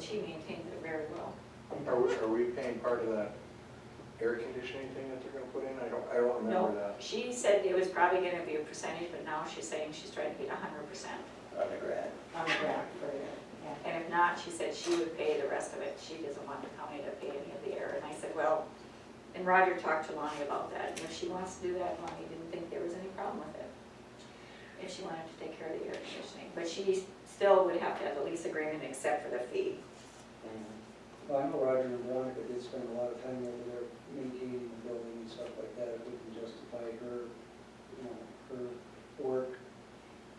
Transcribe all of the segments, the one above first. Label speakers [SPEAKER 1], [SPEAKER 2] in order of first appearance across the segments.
[SPEAKER 1] she maintains it very well.
[SPEAKER 2] Are we, are we paying part of that air conditioning thing that they're gonna put in? I don't, I don't remember
[SPEAKER 1] No,
[SPEAKER 2] that.
[SPEAKER 1] she said it was probably gonna be a percentage, but now she's saying she's trying to get hundred percent
[SPEAKER 2] Undergrad.
[SPEAKER 1] on the grant for it. And if not, she said she would pay the rest of it, she doesn't want the county to pay any of the air, and I said, well, and Roger talked to Lonnie about that, and if she wants to do that, Lonnie didn't think there was any problem with it. If she wanted to take care of the air conditioning, but she still would have to have the lease agreement except for the fee.
[SPEAKER 3] Well, I know Roger and Veronica did spend a lot of time over there maintaining the building and stuff like that, if we can justify her, you know, her work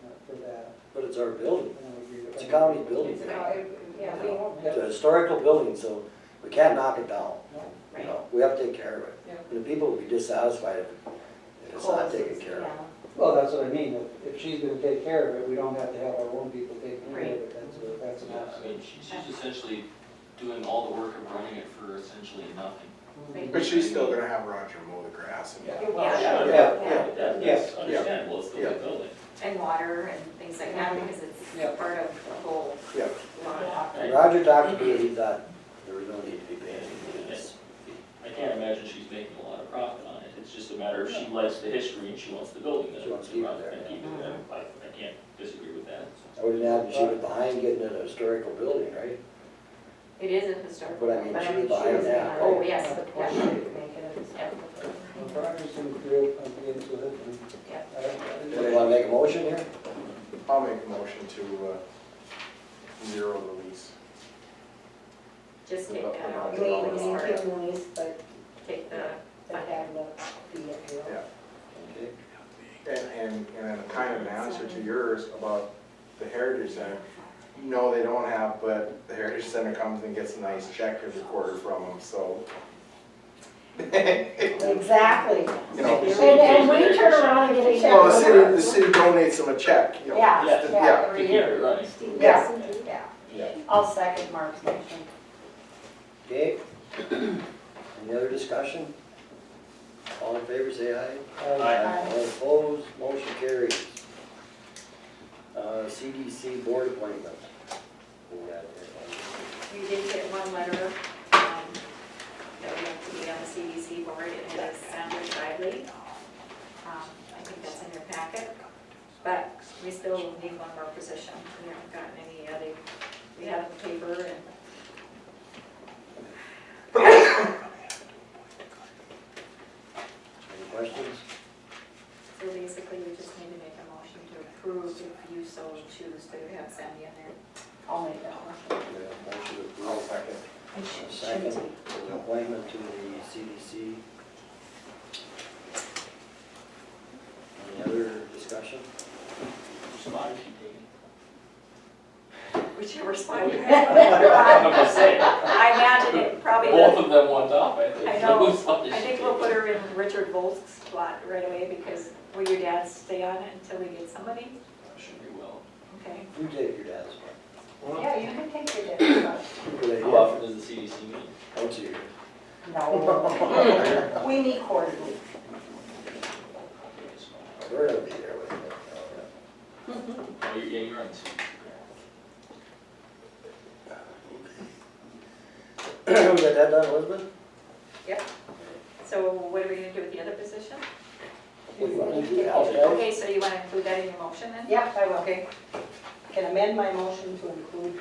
[SPEAKER 3] uh, for that.
[SPEAKER 4] But it's our building,
[SPEAKER 3] And I would agree with
[SPEAKER 4] it's a
[SPEAKER 3] that.
[SPEAKER 4] county building,
[SPEAKER 1] It's
[SPEAKER 4] it's
[SPEAKER 1] about-
[SPEAKER 5] uh, Yeah, we won't,
[SPEAKER 3] Yeah.
[SPEAKER 4] a historical building, so we can't knock it down.
[SPEAKER 3] No,
[SPEAKER 4] You
[SPEAKER 1] Right,
[SPEAKER 4] know, we have to take care of it.
[SPEAKER 5] Yeah.
[SPEAKER 4] And the people will be dissatisfied if- if it's not taken care of.
[SPEAKER 5] yeah.
[SPEAKER 3] Well, that's what I mean, if, if she's gonna take care of it, we don't have to have our own people taking care of it, that's, a- that's an
[SPEAKER 6] Yeah, I
[SPEAKER 3] option.
[SPEAKER 6] mean, she- she's essentially doing all the work of running it for essentially nothing.
[SPEAKER 4] Mm-hmm.
[SPEAKER 1] Right.
[SPEAKER 2] But she's still gonna have Roger mow the grass and.
[SPEAKER 5] It
[SPEAKER 1] Yeah.
[SPEAKER 5] will.
[SPEAKER 7] Yeah,
[SPEAKER 3] Yeah.
[SPEAKER 7] yeah, that- that's
[SPEAKER 2] Yeah.
[SPEAKER 7] understandable, it's still
[SPEAKER 2] Yeah.
[SPEAKER 7] a building.
[SPEAKER 1] and water and things like that, because
[SPEAKER 3] Yeah.
[SPEAKER 1] it's part of the whole
[SPEAKER 2] Yeah,
[SPEAKER 1] lot.
[SPEAKER 7] I-
[SPEAKER 4] And Roger talked to me, he thought there was no need to be paying anything else.
[SPEAKER 7] I can't imagine she's making a lot of profit on it, it's just a matter of she likes the history and she wants the building there.
[SPEAKER 4] She wants to keep it there,
[SPEAKER 7] And
[SPEAKER 4] yeah.
[SPEAKER 7] keep it
[SPEAKER 1] Mm-hmm.
[SPEAKER 7] there, I, I can't disagree with that, so.
[SPEAKER 4] I wouldn't have, she was behind getting it a historical building, right?
[SPEAKER 1] It is a historical.
[SPEAKER 4] But I mean,
[SPEAKER 1] but
[SPEAKER 4] she
[SPEAKER 1] mean,
[SPEAKER 4] was behind
[SPEAKER 1] was
[SPEAKER 4] that,
[SPEAKER 1] behind- Oh,
[SPEAKER 4] right?
[SPEAKER 1] yes,
[SPEAKER 5] But
[SPEAKER 1] yeah.
[SPEAKER 5] we should make it a step.
[SPEAKER 3] Well, if Roger's gonna create, I'm into it, and
[SPEAKER 1] Yeah.
[SPEAKER 3] I don't- I
[SPEAKER 4] Do
[SPEAKER 3] don't-
[SPEAKER 4] you wanna make a motion here?
[SPEAKER 2] I'll make a motion to, uh, zero the lease.
[SPEAKER 1] Just take that out.
[SPEAKER 5] We
[SPEAKER 1] Sorry.
[SPEAKER 5] maintain lease, but
[SPEAKER 1] Take the,
[SPEAKER 5] but have the fee at zero.
[SPEAKER 2] Yeah.
[SPEAKER 4] Okay.
[SPEAKER 2] And, and, and kind of an answer to yours about the Heritage Center. No, they don't have, but the Heritage Center comes and gets a nice check every quarter from them, so.
[SPEAKER 5] Exactly.
[SPEAKER 2] You know,
[SPEAKER 5] And, and we turn around and get a check.
[SPEAKER 2] well, the city, the city donates them a check, you know.
[SPEAKER 5] Yeah,
[SPEAKER 7] Yeah.
[SPEAKER 5] yeah,
[SPEAKER 7] To
[SPEAKER 5] every
[SPEAKER 7] keep
[SPEAKER 5] year.
[SPEAKER 7] it running.
[SPEAKER 5] Yeah,
[SPEAKER 2] Yeah.
[SPEAKER 5] yeah.
[SPEAKER 2] Yeah.
[SPEAKER 5] I'll second Mark's motion.
[SPEAKER 4] Okay. Any other discussion? All in favor, say aye.
[SPEAKER 3] I-
[SPEAKER 5] Aye.
[SPEAKER 4] All opposed, motion carries. Uh, CDC board appointment. We got it.
[SPEAKER 1] we did get one letter, um, that we have to be on the CDC board, and it is Sandra Bradley. Um, I think that's in your packet, but we still need one more position. We haven't gotten any other, we have the paper and.
[SPEAKER 4] Any questions?
[SPEAKER 1] So basically, we just need to make a motion to approve if you so choose to have Sandy in there.
[SPEAKER 5] I'll make that
[SPEAKER 4] We
[SPEAKER 5] one.
[SPEAKER 4] have a motion to
[SPEAKER 2] I'll
[SPEAKER 4] approve.
[SPEAKER 2] second.
[SPEAKER 5] And she-
[SPEAKER 4] A Second,
[SPEAKER 5] she-
[SPEAKER 4] for the appointment to the CDC. Any other discussion?
[SPEAKER 7] Spot is she taking?
[SPEAKER 1] Whichever spot you have.
[SPEAKER 7] I'm gonna say,
[SPEAKER 1] I imagine it probably
[SPEAKER 7] both
[SPEAKER 1] does.
[SPEAKER 7] of them want up, I think.
[SPEAKER 1] I know.
[SPEAKER 7] Whose spot is
[SPEAKER 1] I
[SPEAKER 7] she
[SPEAKER 1] think we'll
[SPEAKER 7] taking?
[SPEAKER 1] put her in Richard Volk's spot right away because will your dad stay on it until we get somebody?
[SPEAKER 7] Should be well.
[SPEAKER 1] Okay.
[SPEAKER 4] You take your dad's one.
[SPEAKER 5] Yeah, you can take your different one.
[SPEAKER 4] Good
[SPEAKER 7] How
[SPEAKER 4] idea.
[SPEAKER 7] often does the CDC meet?
[SPEAKER 4] Once a year.
[SPEAKER 5] No. We meet quarterly.
[SPEAKER 4] We're gonna be there with you.
[SPEAKER 7] Oh, you're, yeah, you're on the CDC.
[SPEAKER 4] We got that done, Elizabeth?
[SPEAKER 1] So what are we gonna do with the other position?
[SPEAKER 4] What do you wanna do,
[SPEAKER 1] Okay, so you wanna include that in your motion then?
[SPEAKER 5] Yep, I will.
[SPEAKER 1] Okay,
[SPEAKER 5] Can amend my motion to include,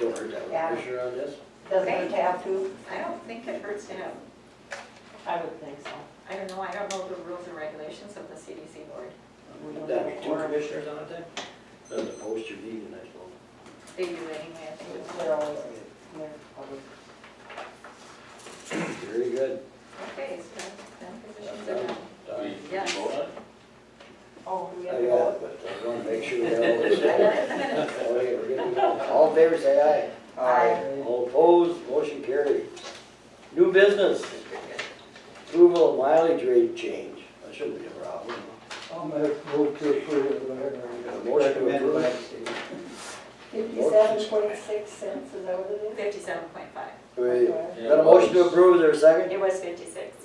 [SPEAKER 4] Don't hurt that
[SPEAKER 5] Yeah.
[SPEAKER 4] one, Commissioner, on this.
[SPEAKER 5] doesn't it have to?
[SPEAKER 1] I don't think it hurts to have,
[SPEAKER 5] I would think so.
[SPEAKER 1] I don't know, I don't know the rules and regulations of the CDC board.
[SPEAKER 5] We don't
[SPEAKER 4] That'd be
[SPEAKER 5] have
[SPEAKER 4] two
[SPEAKER 5] quorum.
[SPEAKER 4] commissioners on it then? Then the post your meeting next one.
[SPEAKER 1] They do anyway, I think.
[SPEAKER 5] They're always, they're public.
[SPEAKER 4] Very good.
[SPEAKER 1] Okay, so then positions are done.
[SPEAKER 4] Done.
[SPEAKER 7] We- we
[SPEAKER 1] Yes.
[SPEAKER 7] vote on it?
[SPEAKER 5] Oh, we
[SPEAKER 4] I
[SPEAKER 5] have
[SPEAKER 4] got
[SPEAKER 5] to vote.
[SPEAKER 4] it, but I want to make sure we have all this. Okay, we're good to go. All in favor, say
[SPEAKER 2] Aye.
[SPEAKER 4] aye. All opposed, motion carried. New business. Approval of mileage rate change. That shouldn't be a problem.
[SPEAKER 3] I'll move to approve it, whatever.
[SPEAKER 4] Motion to
[SPEAKER 3] Recommended by the
[SPEAKER 4] approve.
[SPEAKER 3] state.
[SPEAKER 5] Fifty-seven point six cents, is that what it is?
[SPEAKER 1] Fifty-seven point five.
[SPEAKER 4] We got a motion to approve, is there a second?
[SPEAKER 1] It was fifty-six.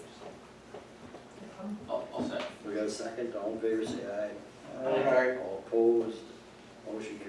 [SPEAKER 7] I'll, I'll second.
[SPEAKER 4] We got a second, all in favor, say aye.
[SPEAKER 2] All right.
[SPEAKER 4] All opposed, motion carried.